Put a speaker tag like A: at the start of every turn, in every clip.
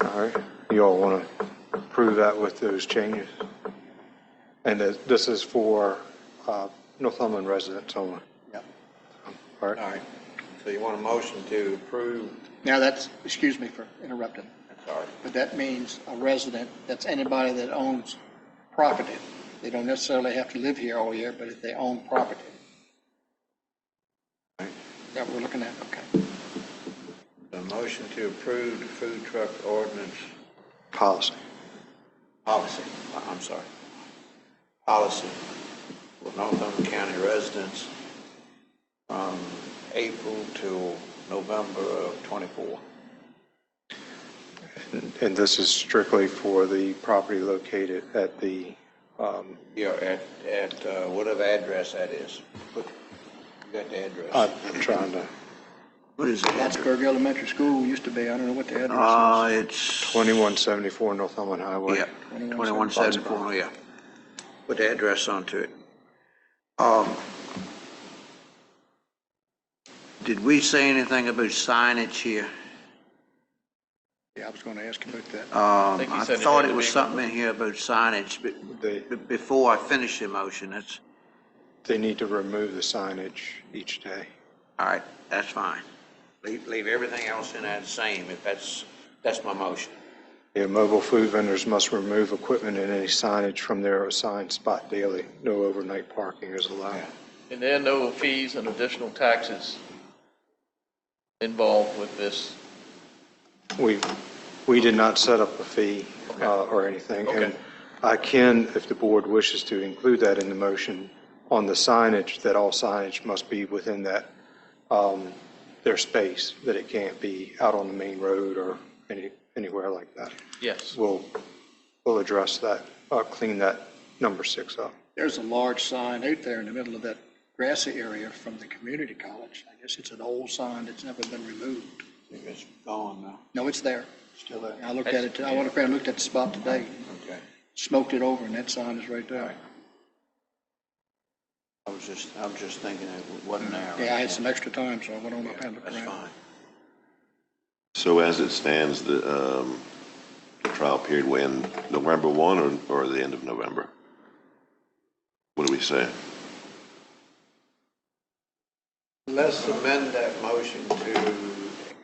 A: All right, you all want to approve that with those changes? And that this is for uh, Northumberland residents only,
B: Yep.
A: all
C: All
A: right?
C: right, so you want a motion to approve,
B: Now, that's, excuse me for interrupting,
C: sorry,
B: but that means a resident, that's anybody that owns property. They don't necessarily have to live here all year, but if they own property. That we're looking at, okay.
C: a motion to approve the food truck ordinance
A: Policy.
C: policy, I'm sorry, policy for Northumberland County residents from April till November of '24.
A: And- And this is strictly for the property located at the, um,
C: Yeah, at, at uh, whatever address that is. Put- You got the address?
A: uh, I'm trying to,
C: Uh, What is
B: Plattsburgh Elementary School used to be, I don't know what the address
C: Uh, it's,
A: 2174 Northumberland Highway.
C: yeah, 2174, yeah. Put the address onto it. Um, Did we say anything about signage here?
B: is. Yeah, I was going to ask you about that.
C: Um,
D: think you
C: I
D: said it
C: thought
D: had
C: it
D: to
C: was
D: be-
C: something in here about signage, but
A: They,
C: b- before I finish the motion, that's,
A: they need to remove the signage each day.
C: all right, that's fine. Leave, leave everything else in that same, if that's, that's my motion.
A: Yeah, mobile food vendors must remove equipment and any signage from their assigned spot daily. No overnight parking is allowed.
D: And there are no fees and additional taxes involved with this.
A: We, we did not set up a fee uh, or anything. And
D: Okay.
A: I can, if the board wishes to, include that in the motion on the signage, that all signage must be within that, um, their space, that it can't be out on the main road or any, anywhere like that.
D: Yes.
A: We'll, we'll address that, uh, clean that number six up.
B: There's a large sign out there in the middle of that grassy area from the community college. I guess it's an old sign that's never been removed.
C: It's gone now.
B: No, it's there.
C: Still there?
B: I looked at it, I went up there and looked at the spot today,
C: Okay.
B: smoked it over, and that sign is right there.
C: I was just, I was just thinking it wasn't there.
B: Yeah, I had some extra time, so I went on up and looked
C: That's
B: around.
C: fine.
E: So as it stands, the um, the trial period will end November 1 or- or the end of November? What do we say?
C: Let's amend that motion to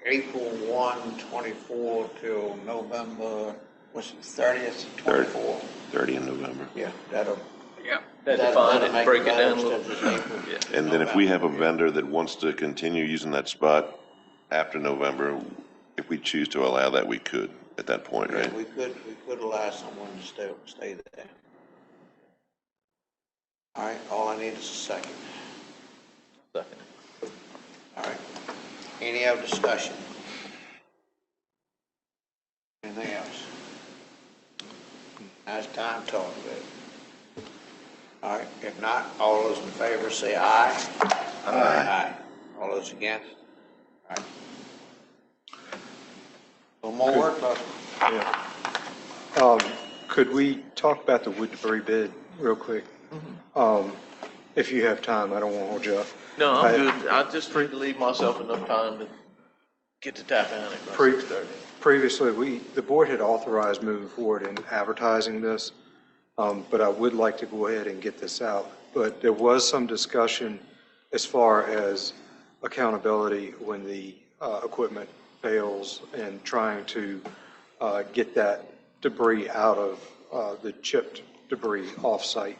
C: April 1, 24 till November, what's it, 30th, 24?
E: 30 in November?
C: Yeah, that'll.
D: Yeah.
C: that'll-
D: Define
C: that'll
D: it,
C: make
D: break it down a
C: better
D: little.
C: instead of April.
D: Yeah.
E: And then if we have a vendor that wants to continue using that spot after November, if we choose to allow that, we could at that point, right?
C: We could, we could allow someone to stay, stay there. All right, all I need is a second.
D: Second.
C: All right. Any other discussion? Anything else? Now it's time to talk about it. All right, if not, all those in favor say aye. Aye. All those against? All right. A little more work, Buster.
A: Yeah. Um, Could we talk about the wood debris bid real quick? Um, If you have time, I don't want to hold you up.
D: Mm-hmm. No,
A: I-
D: I'm good. I just need to leave myself enough time to get to tap in it.
A: Pre- Previously, we, the board had authorized moving forward in advertising this, um, but I would like to go ahead and get this out. But there was some discussion as far as accountability when the uh, equipment fails and trying to uh, get that debris out of uh, the chipped debris off-site.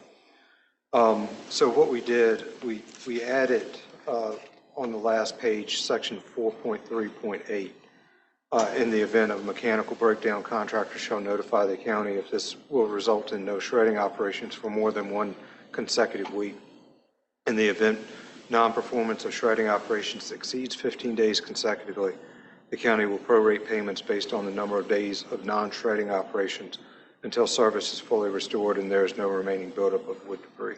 A: Um, So what we did, we, we added uh, on the last page, section 4.3.8, uh, in the event of mechanical breakdown, contractor shall notify the county if this will result in no shredding operations for more than one consecutive week. In the event non-performance of shredding operations exceeds 15 days consecutively, the county will prorate payments based on the number of days of non-shredding operations until service is fully restored and there is no remaining buildup of wood debris.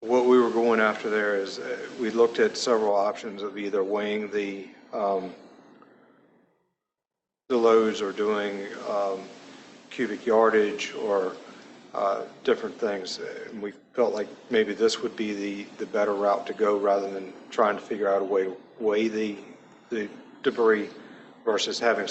A: What we were going after there is, uh, we looked at several options of either weighing the um, the loads or doing um, cubic yardage or uh, different things. And we felt like maybe this would be the, the better route to go rather than trying to figure out a way to weigh the, the debris versus having